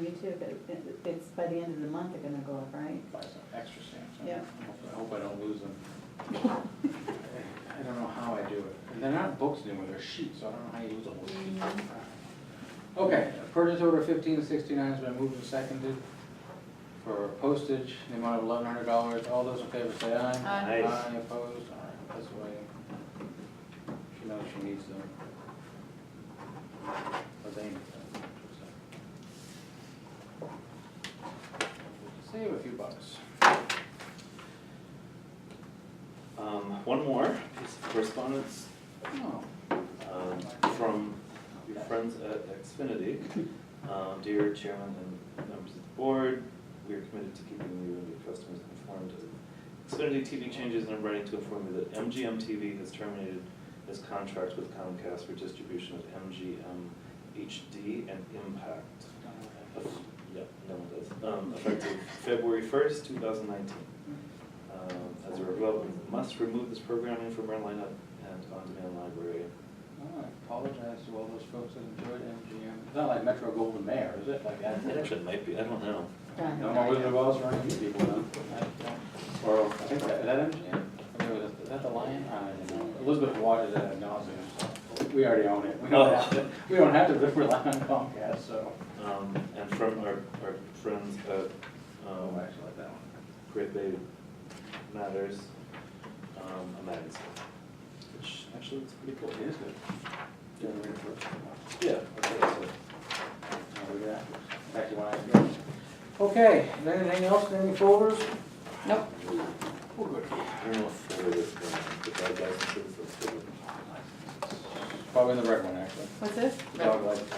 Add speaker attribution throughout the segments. Speaker 1: you too, but it- it's by the end of the month they're gonna go up, right?
Speaker 2: buy some extra stamps.
Speaker 1: Yeah.
Speaker 2: I hope I don't lose them. I don't know how I do it. And they're not books anymore, they're sheets, so I don't know how you lose a whole sheet. Okay, purchase order fifteen sixty-nine has been moved and seconded for postage, in the amount of eleven hundred dollars. All those in favor say aye.
Speaker 1: Aye.
Speaker 3: Aye.
Speaker 2: Aye opposed, all right, that's the way. She knows she needs them. Or they need them. Save a few bucks. Oh,
Speaker 3: Um, one more piece of correspondence,
Speaker 2: Oh.
Speaker 3: um, from your friends at Xfinity. Um, dear Chairman and members of the board, we are committed to keeping you and your customers informed of Xfinity TV changes, and I'm writing to inform you that MGM TV has terminated its contract with Comcast for distribution of MGM HD and Impact. Yep, no one does. Um, effective February first, two thousand nineteen. Um, As a result, we must remove this programming from our lineup and on-demand library.
Speaker 2: Oh, I apologize to all those folks that enjoyed MGM. It's not like Metro Golden Mayer, is it? Like that?
Speaker 3: It actually might be, I don't know.
Speaker 1: Done.
Speaker 2: No more Wizard of Oz or any people, no? I don't- Or, I think that, is that MGM? Or was it- Is that the Lion? I don't know. Elizabeth Waters at nauseam, so we already own it. We don't have to, we don't have to rely on Comcast, so.
Speaker 3: Um, And from our, our friends at um,
Speaker 2: Oh, actually like that one.
Speaker 3: Great Bay Matters, um, a magazine, which actually is pretty cool.
Speaker 2: It is good. Yeah, we're gonna put it on.
Speaker 3: Yeah. okay, so-
Speaker 2: Now we got- back to what I was doing. Okay, is there anything else, any folders?
Speaker 1: Nope.
Speaker 2: We're good.
Speaker 3: I don't know if there is, um, the bad guys and things that's good.
Speaker 2: Probably the red one, actually.
Speaker 1: What's this?
Speaker 2: Dog license.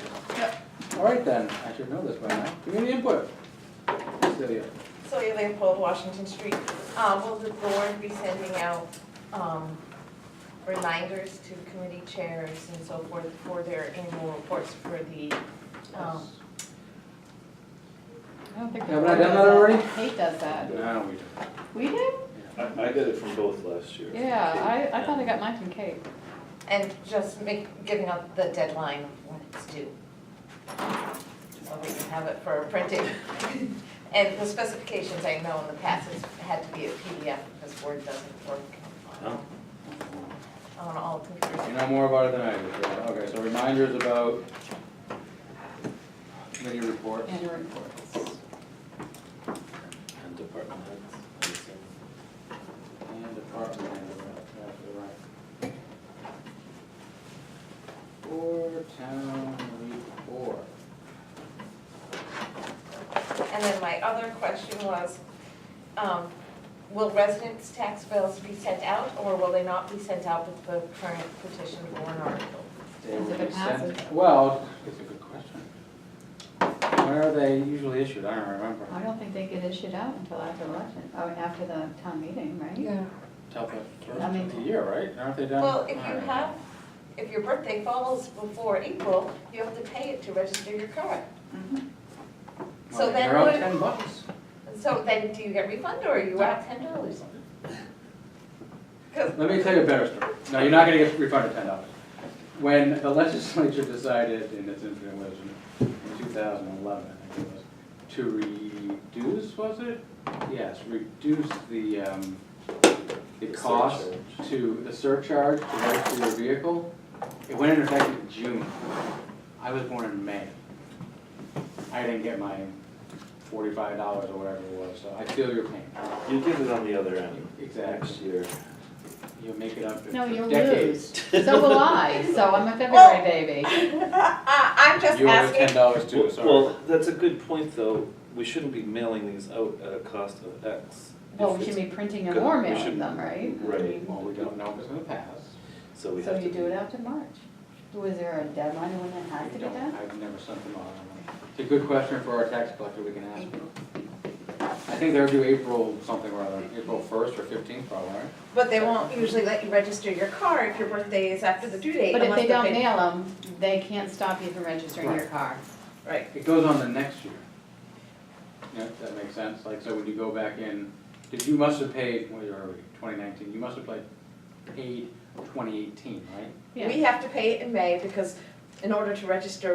Speaker 2: All right then, I should know this by now. Community input. Celia.
Speaker 4: Celia Leopold, Washington Street. Uh, Will the board be sending out um, reminders to committee chairs and so forth for their annual reports for the, um,
Speaker 1: I don't think. the
Speaker 2: Haven't I done
Speaker 1: board does
Speaker 2: that already?
Speaker 1: Kate does that.
Speaker 2: No, we don't.
Speaker 1: We did?
Speaker 3: I, I got it from both last year.
Speaker 1: Yeah, I, I thought I got mine from Kate.
Speaker 4: and just make, giving out the deadline of when it's due. So they can have it for printing. And the specifications, I know in the past, it's had to be a PDF because Word doesn't work
Speaker 3: Oh,
Speaker 4: on all computers.
Speaker 2: You know more about it than I do. so- Okay, so reminders about committee reports.
Speaker 1: Annual reports.
Speaker 3: and department heads, I assume.
Speaker 2: And department head, that's right. Or town report.
Speaker 4: And then my other question was, um, will residents' tax bills be sent out, or will they not be sent out with the current petition warrant article?
Speaker 2: They
Speaker 1: Is it
Speaker 2: were sent-
Speaker 1: a passive?
Speaker 2: Well, it's a good question. When are they usually issued? I don't remember.
Speaker 1: I don't think they get issued out until after election, oh, after the town meeting, right?
Speaker 2: Till the first
Speaker 1: I mean-
Speaker 2: of the year, right? Aren't they done?
Speaker 4: Well, if you
Speaker 2: Alright.
Speaker 4: have, if your birthday falls before April, you have to pay it to register your car.
Speaker 1: Mhm.
Speaker 4: So
Speaker 2: Well,
Speaker 4: then
Speaker 2: They're up
Speaker 4: what-
Speaker 2: ten bucks.
Speaker 4: And so then do you get refunded, or you out ten dollars?
Speaker 2: Let me tell you a better story. No, you're not gonna get refunded ten dollars. When the legislature decided in its infinite wisdom, in two thousand eleven, I think it was, to reduce, was it? Yes, reduce the, um, the
Speaker 3: The
Speaker 2: cost
Speaker 3: surcharge.
Speaker 2: to, the surcharge to register your vehicle. It went into effect in June. I was born in May. I didn't get my forty-five dollars or whatever it was, so I feel your pain.
Speaker 3: You get it on the other end.
Speaker 2: Exactly.
Speaker 3: Next year.
Speaker 2: You make it up in
Speaker 1: No, you
Speaker 2: decades.
Speaker 1: lose. So will I, so I'm a February
Speaker 4: Well-
Speaker 1: baby.
Speaker 4: I'm just
Speaker 2: You owe ten
Speaker 4: asking,
Speaker 2: dollars too,
Speaker 3: Well-
Speaker 2: sorry.
Speaker 3: Well, that's a good point, though. We shouldn't be mailing these out at a cost of X.
Speaker 1: Well,
Speaker 3: If
Speaker 1: we should
Speaker 3: it's-
Speaker 1: be printing and
Speaker 3: good.
Speaker 1: more
Speaker 3: We
Speaker 1: mailing
Speaker 3: should-
Speaker 1: them, right? I
Speaker 3: Right.
Speaker 1: mean,
Speaker 2: Well, we don't know if it's gonna pass.
Speaker 3: So we
Speaker 1: So
Speaker 3: have to.
Speaker 1: you do it after March. Was there a deadline when that has to
Speaker 2: We
Speaker 1: be
Speaker 2: don't-
Speaker 1: done?
Speaker 2: I've never sent them out. I don't know. It's a good question for our tax collector, we can ask them. I think they're due April something or other, April first or fifteenth probably, right?
Speaker 4: but they won't usually let you register your car if your birthday is after the due date.
Speaker 1: But if
Speaker 4: unless
Speaker 1: they
Speaker 4: the
Speaker 1: don't
Speaker 4: pay-
Speaker 1: mail them, they can't stop you from registering your
Speaker 2: Right.
Speaker 1: car.
Speaker 4: Right,
Speaker 2: It goes on the next year. Yeah, that makes sense, like, so when you go back in, did, you must have paid, what are we, twenty nineteen, you must have paid, paid twenty eighteen, right?
Speaker 1: Yeah.
Speaker 4: we have to pay it in May because in order to register